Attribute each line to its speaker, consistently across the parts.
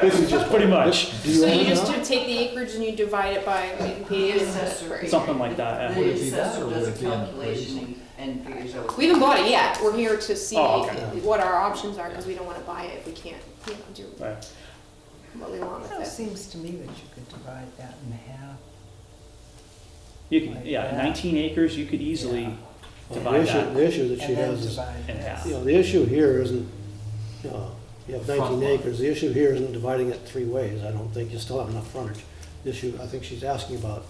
Speaker 1: This is just.
Speaker 2: Pretty much,
Speaker 1: Do you
Speaker 3: So
Speaker 1: own
Speaker 3: you
Speaker 1: it
Speaker 3: just
Speaker 1: now?
Speaker 3: do take the acreage and you divide it by the accessory.
Speaker 2: something like that. uh, yeah.
Speaker 4: The
Speaker 5: Would it be that
Speaker 4: assessor
Speaker 5: or would
Speaker 4: does
Speaker 5: it
Speaker 4: a
Speaker 5: be in
Speaker 4: calculation and figures out.
Speaker 3: We haven't bought it yet. We're here to see
Speaker 2: Oh, okay.
Speaker 3: what our options are because we don't want to buy it if we can't, you know, do
Speaker 2: Right.
Speaker 3: what we want
Speaker 5: Well, It
Speaker 3: with it.
Speaker 5: seems to me that you could divide that in half.
Speaker 2: You can, yeah, nineteen acres, you could easily
Speaker 1: The
Speaker 2: divide
Speaker 1: issue,
Speaker 2: that
Speaker 1: the issue that she
Speaker 5: and then
Speaker 1: has is,
Speaker 5: divide
Speaker 2: in half.
Speaker 1: you know, the issue here isn't, you know, you have
Speaker 5: Front
Speaker 1: nineteen
Speaker 5: lot.
Speaker 1: acres, the issue here isn't dividing it three ways, I don't think, you still have enough frontage. The issue, I think she's asking about.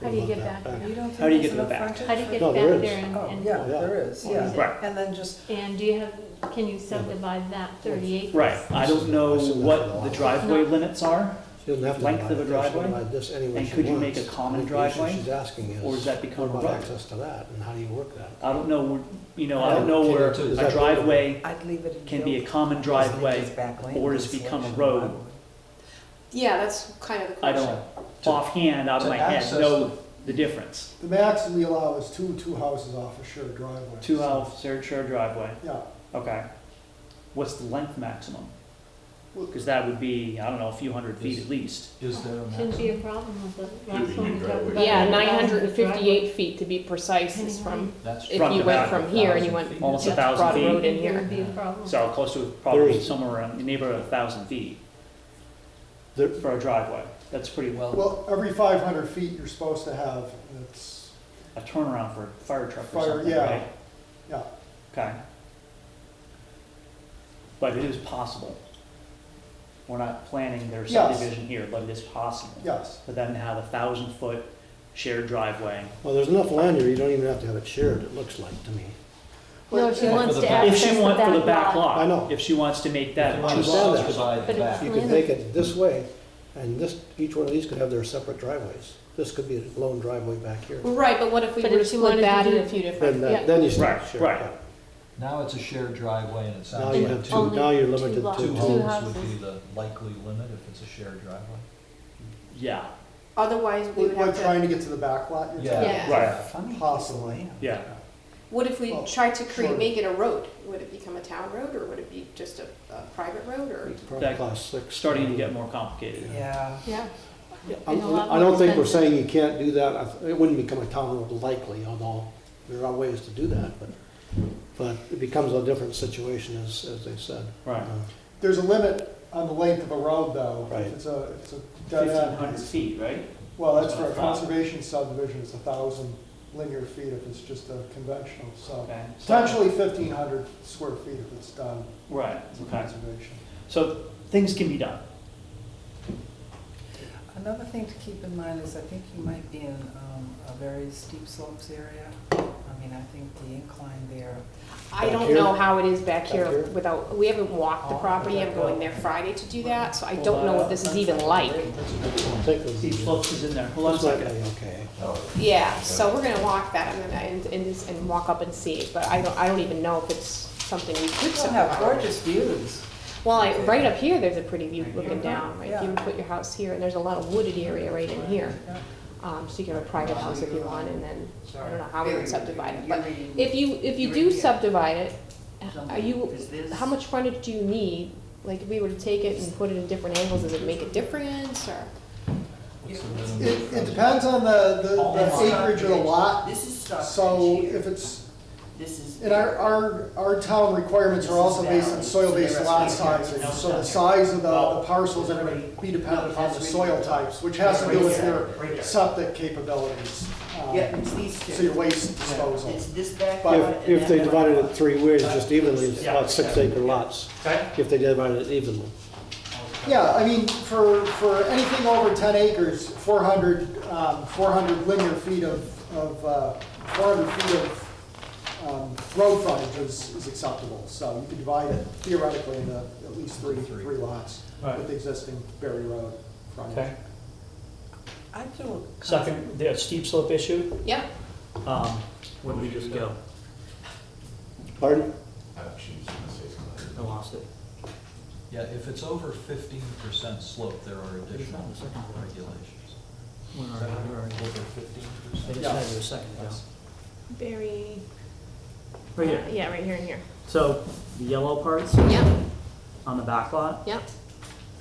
Speaker 6: How do you
Speaker 1: about
Speaker 6: get
Speaker 1: that
Speaker 6: back?
Speaker 1: back.
Speaker 5: You don't
Speaker 2: How do you get
Speaker 5: think there's
Speaker 2: to the
Speaker 5: enough
Speaker 2: back?
Speaker 6: How do you
Speaker 5: frontage?
Speaker 6: get
Speaker 1: No,
Speaker 6: back
Speaker 1: there is.
Speaker 6: there and,
Speaker 5: Oh,
Speaker 6: and-
Speaker 5: yeah, there is,
Speaker 6: What is
Speaker 5: yeah.
Speaker 6: it?
Speaker 2: Right.
Speaker 5: And then just,
Speaker 6: and do you have, can you subdivide that thirty acres?
Speaker 2: Right, I don't know what the driveway limits are,
Speaker 1: She doesn't have to.
Speaker 2: Length
Speaker 1: divide
Speaker 2: of a
Speaker 1: it. She can
Speaker 2: driveway?
Speaker 1: divide This any way
Speaker 2: And
Speaker 1: she
Speaker 2: could you make
Speaker 1: wants.
Speaker 2: a common
Speaker 1: I think The
Speaker 2: driveway?
Speaker 1: issue she's asking is.
Speaker 2: or does that
Speaker 1: What
Speaker 2: become a
Speaker 1: about
Speaker 2: road?
Speaker 1: access to that, and how do you work that?
Speaker 2: I don't know, where- you know, I don't know
Speaker 5: Yeah,
Speaker 2: where
Speaker 5: too. Is
Speaker 2: a
Speaker 1: that-
Speaker 2: driveway
Speaker 5: I'd leave it in.
Speaker 2: can be a
Speaker 5: built.
Speaker 2: common
Speaker 5: Just leave this
Speaker 2: driveway
Speaker 5: back lane
Speaker 2: or
Speaker 5: as
Speaker 2: has become a
Speaker 5: selection.
Speaker 2: road.
Speaker 3: Yeah, that's kind of the
Speaker 2: I
Speaker 3: question.
Speaker 2: don't, offhand, out of
Speaker 5: To
Speaker 2: my head,
Speaker 5: access
Speaker 2: know the difference.
Speaker 7: The max we allow is two, two houses off a shared driveway.
Speaker 2: Two house, shared shared driveway,
Speaker 7: Yeah,
Speaker 2: okay. What's the length maximum? Because that would be, I don't know, a few hundred feet at least.
Speaker 5: Is there a
Speaker 6: Shouldn't
Speaker 5: maximum?
Speaker 6: be a problem with the last
Speaker 8: be
Speaker 6: one we
Speaker 8: new
Speaker 6: talked
Speaker 8: driveway.
Speaker 6: about.
Speaker 3: Yeah,
Speaker 6: the
Speaker 3: nine
Speaker 6: driveway.
Speaker 3: hundred and fifty-eight feet to be precise is from,
Speaker 5: That's
Speaker 3: if
Speaker 2: Front
Speaker 3: you
Speaker 2: to back,
Speaker 3: went from here and you went
Speaker 5: feet.
Speaker 2: Almost a
Speaker 3: just
Speaker 2: thousand
Speaker 3: Broad
Speaker 2: feet.
Speaker 3: Road in
Speaker 6: There would
Speaker 3: here.
Speaker 6: be a problem.
Speaker 2: So close to probably
Speaker 1: There's-
Speaker 2: somewhere around the neighborhood of a thousand feet
Speaker 1: There,
Speaker 2: for a driveway. That's pretty well,
Speaker 7: well, every five hundred feet you're supposed to have, it's,
Speaker 2: a turnaround for a fire truck or
Speaker 7: Fire,
Speaker 2: something,
Speaker 7: yeah.
Speaker 2: right?
Speaker 7: yeah.
Speaker 2: Okay. But it is possible. We're not planning their
Speaker 7: Yes.
Speaker 2: subdivision here, but it is possible.
Speaker 7: Yes.
Speaker 2: For them to have a thousand foot shared driveway.
Speaker 1: well, there's enough land here, you don't even have to have it shared, it looks like to me.
Speaker 6: No, if she
Speaker 5: Well,
Speaker 6: wants
Speaker 5: for
Speaker 6: to
Speaker 5: the back-
Speaker 2: If
Speaker 6: access
Speaker 2: she
Speaker 6: the
Speaker 2: wants, for the
Speaker 6: back
Speaker 2: back
Speaker 6: lot.
Speaker 2: lot.
Speaker 1: I know.
Speaker 2: If she wants to make that
Speaker 1: want
Speaker 2: two
Speaker 1: to
Speaker 2: lots.
Speaker 1: that.
Speaker 5: divide
Speaker 6: But
Speaker 5: the
Speaker 6: it's-
Speaker 5: back.
Speaker 1: You could make it this way, and this, each one of these could have their separate driveways. This could be a lone driveway back here.
Speaker 3: Right, but what if we
Speaker 6: But
Speaker 3: were to
Speaker 6: if she
Speaker 3: split
Speaker 6: wanted
Speaker 3: that
Speaker 6: to
Speaker 3: in
Speaker 6: do-
Speaker 3: a few different?
Speaker 1: Then,
Speaker 3: yeah.
Speaker 1: that- then you
Speaker 2: Right,
Speaker 1: start sharing.
Speaker 2: right.
Speaker 1: yeah.
Speaker 5: Now it's a shared driveway and it
Speaker 1: Now
Speaker 5: sounds
Speaker 1: you
Speaker 5: like
Speaker 1: have
Speaker 5: two,
Speaker 1: two,
Speaker 6: Only
Speaker 1: now you're
Speaker 6: two
Speaker 1: limited
Speaker 6: lots.
Speaker 1: to
Speaker 5: two
Speaker 6: Two
Speaker 1: two.
Speaker 5: homes would
Speaker 6: houses.
Speaker 5: be the likely limit if it's a shared driveway.
Speaker 2: Yeah,
Speaker 3: Otherwise, we
Speaker 7: We're
Speaker 3: would have
Speaker 7: trying
Speaker 3: to,
Speaker 7: to get to the back lot, you're
Speaker 5: Yeah.
Speaker 3: Yeah.
Speaker 7: saying?
Speaker 2: Right.
Speaker 5: Funny.
Speaker 7: Possibly.
Speaker 2: yeah.
Speaker 3: what if we
Speaker 7: Well,
Speaker 3: tried to create,
Speaker 7: sure.
Speaker 3: make it a road? Would it become a town road or would it be just a, a private road or?
Speaker 1: Probably
Speaker 2: That-
Speaker 1: class six.
Speaker 2: Starting to get more complicated.
Speaker 5: Yeah.
Speaker 6: Yeah,
Speaker 1: Yeah,
Speaker 6: and a lot
Speaker 1: I'm- I don't think
Speaker 6: more
Speaker 1: we're saying you can't do that. I th- It wouldn't become a town road likely, although there are ways to do that, but, but it becomes a different situation as, as they said.
Speaker 2: Right.
Speaker 1: Uh,
Speaker 7: There's a limit on the length of a road though.
Speaker 1: Right.
Speaker 7: If it's a, if it's a dead
Speaker 2: Fifteen hundred
Speaker 7: end.
Speaker 2: feet, right?
Speaker 7: Well, that's for a
Speaker 2: Wow.
Speaker 7: conservation subdivision, it's a thousand linear feet if it's just a conventional, so.
Speaker 2: Okay. so-
Speaker 7: Potentially fifteen hundred square feet if it's done
Speaker 2: Right,
Speaker 7: as a
Speaker 2: okay.
Speaker 7: conservation.
Speaker 2: So things can be done.
Speaker 5: Another thing to keep in mind is I think you might be in um, a very steep slopes area. I mean, I think the incline there,
Speaker 3: I
Speaker 1: Back
Speaker 3: don't
Speaker 1: here?
Speaker 3: know how it is back
Speaker 1: Back
Speaker 3: here
Speaker 1: here?
Speaker 3: without, we haven't walked the
Speaker 5: Oh,
Speaker 3: property, I'm
Speaker 5: okay.
Speaker 3: going there Friday to do that, so I don't know
Speaker 2: uh,
Speaker 3: what this is even like.
Speaker 1: I'll Take the.
Speaker 2: Steep slopes is in there. Hold on a
Speaker 1: That's
Speaker 2: second.
Speaker 1: likely okay.
Speaker 3: Oh. Yeah, so we're gonna walk that and, and, and just- and walk up and see, but I don't, I don't even know if it's something we could
Speaker 5: you have
Speaker 3: subdivide.
Speaker 5: gorgeous views.
Speaker 3: Well, like, right up here, there's a pretty view looking down, right, if you
Speaker 5: Yeah.
Speaker 3: put your house here, and there's a lot of wooded area right in here.
Speaker 5: Yeah.
Speaker 3: Um, so you can have a private house if you want, and then, I don't know how we would subdivide it, but
Speaker 4: You're reading-
Speaker 3: if you, if you
Speaker 4: You're
Speaker 3: do
Speaker 4: reading-
Speaker 3: subdivide it, are
Speaker 4: Something.
Speaker 3: you,
Speaker 4: Is this-
Speaker 3: How much frontage do you need? Like, if we were to take it and put it in different angles, does it make a difference, or?
Speaker 7: It, it depends on the, the
Speaker 5: Oh,
Speaker 7: the
Speaker 5: my.
Speaker 7: acreage of the lot,
Speaker 4: This is Stockbridge
Speaker 7: so
Speaker 4: here.
Speaker 7: if it's,
Speaker 4: This is.
Speaker 7: And our, our, our town requirements are also based on soil-based lot sizes, so the size of the the parcels are gonna be dependent upon the soil types, which has to do with their septic capabilities. um,
Speaker 4: Yeah, it's these two.
Speaker 7: So your waste disposal.
Speaker 4: It's this back.
Speaker 7: But
Speaker 4: lot
Speaker 1: If,
Speaker 4: and
Speaker 1: if they
Speaker 4: that
Speaker 1: divided
Speaker 4: back
Speaker 1: it
Speaker 4: lot.
Speaker 1: three ways, just evenly, it's
Speaker 2: Yeah.
Speaker 1: about six acre lots,
Speaker 2: Okay?
Speaker 1: if they divided it evenly.
Speaker 7: Yeah, I mean, for, for anything over ten acres, four hundred, um, four hundred linear feet of, of, uh, four hundred feet of, um, road frontage is, is acceptable, so you could divide it theoretically into at least three, three lots
Speaker 2: Right.
Speaker 7: with the existing Berry Road frontage.
Speaker 2: Okay.
Speaker 5: I do. a-
Speaker 2: Second, the steep slope issue,
Speaker 3: Yep.
Speaker 2: um, where do we just go?
Speaker 1: Pardon?
Speaker 2: I lost it.
Speaker 5: Yeah, if it's over fifteen percent slope, there are additional regulations.
Speaker 2: Where
Speaker 5: Is
Speaker 2: are
Speaker 5: that
Speaker 2: you? Where are
Speaker 5: over
Speaker 2: you?
Speaker 5: fifteen
Speaker 2: I
Speaker 5: percent?
Speaker 2: just had you a second ago.
Speaker 3: Very.
Speaker 2: Right here.
Speaker 3: Yeah, right here and here.
Speaker 2: So the yellow parts
Speaker 3: Yep,
Speaker 2: on the back lot,
Speaker 3: yep.